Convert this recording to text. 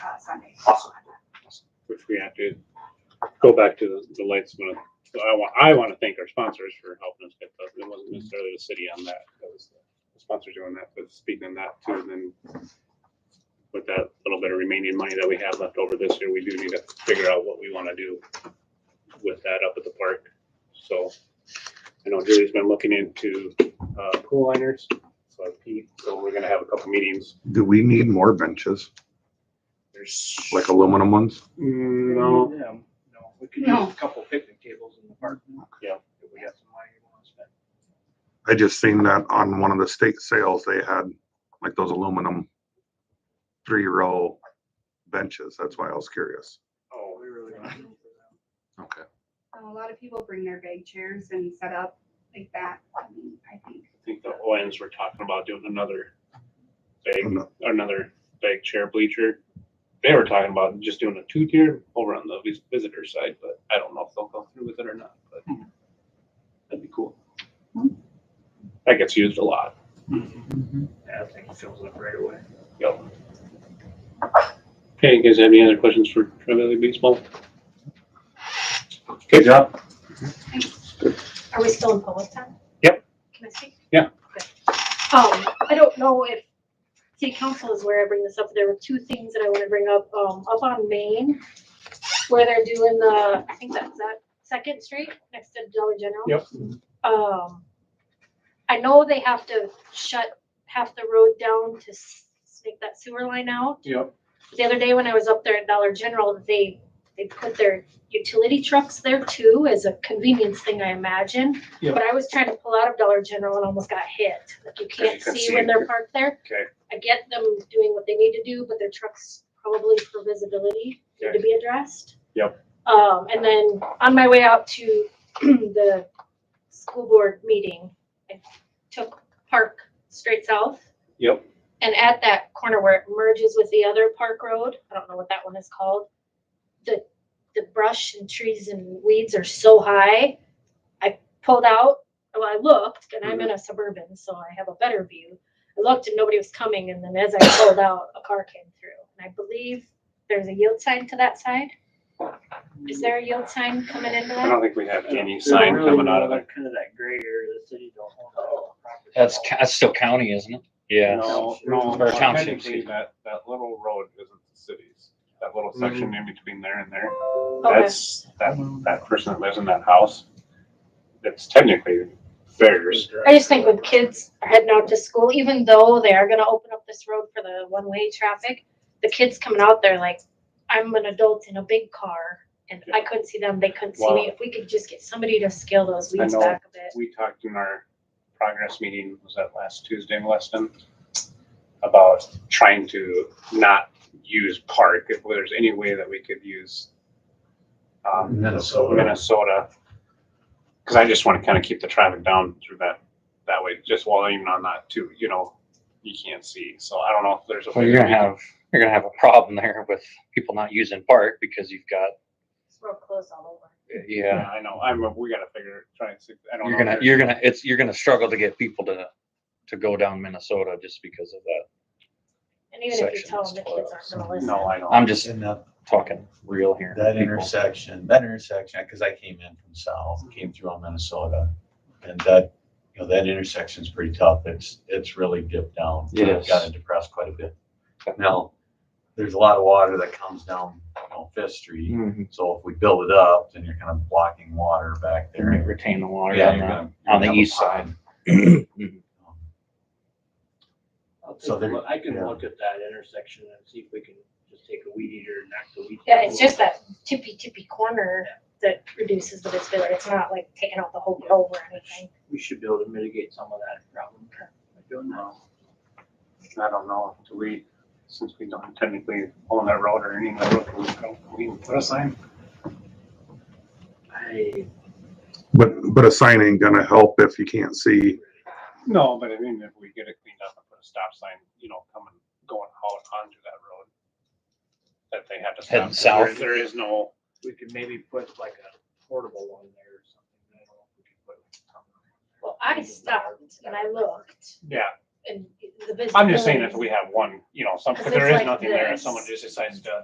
Sunday. Awesome. which we have to go back to the, the lights. one. So I want, I want to thank our sponsors for helping us get those. It wasn't necessarily the city on that. That was the sponsor doing that, but speaking of that too, then with that little bit of remaining money that we have left over this year, we do need to figure out what we want to do with that up at the park. So I know Julie's been looking into, uh, pool liners, so Pete, so we're gonna have a couple meetings. Do we need more benches, There's. like aluminum ones? Mm, No. Yeah, No, we could use No. a couple picnic tables in the park. Yeah. If we have some money we want to spend. I just seen that on one of the state sales, they had like those aluminum three row benches. That's why I was curious. Oh, We really don't have room for that. Okay. A lot of people bring their big chairs and set up like that, I mean, I think. I think the Owens were talking about doing another bag, another bag chair bleacher. They were talking about just doing a two tier over on the vis- visitor side, but I don't know if they'll go through with it or not, but that'd be cool. That gets used a lot. Mm-hmm. Yeah, I think it fills up right away. Okay, you guys have any other questions for Tri-Valley Baseball? Good job. Are we still in public time? Yep. Can I speak? Yeah. Okay. Um, I don't know if city council is where I bring this up. There were two things that I want to bring up, um, up on Main, where they're doing the, I think that's that Second Street next to Dollar General. Yep. Um, I know they have to shut half the road down to s- make that sewer line out. Yep. The other day when I was up there at Dollar General, they, they put their utility trucks there too as a convenience thing, I imagine. Yeah. But I was trying to pull out of Dollar General and almost got hit. Like you can't can see see. when they're parked there. Okay. I get them doing what they need to do, but their trucks probably for visibility need to be addressed. Yep. Um, and then on my way out to the school board meeting, I took Park straight south. Yep. And at that corner where it merges with the other park road, I don't know what that one is called, the, the brush and trees and weeds are so high. I pulled out, well, I looked, and I'm in a suburban, so I have a better view. I looked and nobody was coming, and then as I pulled out, a car came through. And I believe there's a yield sign to that side. Is there a yield sign coming into I that? don't think we have any There's sign really coming out of no there. Kind of that gray area, the city don't own that property. That's, ca- that's still county, isn't it? Yeah. No, no, Or township, technically, excuse me. that, that little road isn't the city's. That little section in between there and there. Okay. That's, that, that person that lives in that house, that's technically theirs. I just think when kids are heading out to school, even though they are gonna open up this road for the one-way traffic, the kids coming out there like, I'm an adult in a big car and I couldn't see them, they couldn't see me. If we could just get somebody to scale those I weeds know. back a bit. We talked in our progress meeting, was that last Tuesday, Weston? About trying to not use park, if there's any way that we could use um, Minnesota. Minnesota. Cause I just wanna kinda keep the traffic down through that, that way, just while even on that too, you know, you can't see, so I don't know if there's a. Well, you're gonna have, you're gonna have a problem there with people not using park because you've got, It's real close all over. yeah. Yeah, I know, I'm, we gotta figure, try and see, I don't know. You're if gonna, there's- you're gonna, it's, you're gonna struggle to get people to, to go down Minnesota just because of that. And even if you Section tell is them, the kids aren't closed. gonna listen. No, I know. I'm just And that, talking real here. that People- intersection, that intersection, because I came in from south, came through on Minnesota. And that, you know, that intersection's pretty tough. It's, it's really dipped down. It It's is. Gotten depressed quite a bit. Now, there's a lot of water that comes down, you know, Fifth Street. Mhm. So if we build it up, then you're kind of blocking water back They're gonna there. retain the Hmm. water Yeah, on you're the, gonna- on the you're gonna have a east pond. side. I'll take So a there- look- I can yeah. look at that intersection and see if we can just take a weed eater and knock the weed. Yeah, it's just that tippy tippy corner that reduces the visibility. It's not like taking out the whole road or anything. We should be able to mitigate some of that problem. I don't know. I don't know, do we, since we don't technically own that road or any of that road, can we, can we even put a sign? I, But, but a sign ain't gonna help if you can't see. No, but I mean, if we get it cleaned up and put a stop sign, you know, coming, going out onto that road. That they have to stop. Heading south. There is no. we could maybe put like a portable one there or something. I don't know if we could put something. Well, I stopped and I looked Yeah, and the visibility. I'm just saying if we have one, you know, some, if If there it's is like nothing there, if this. someone just decides to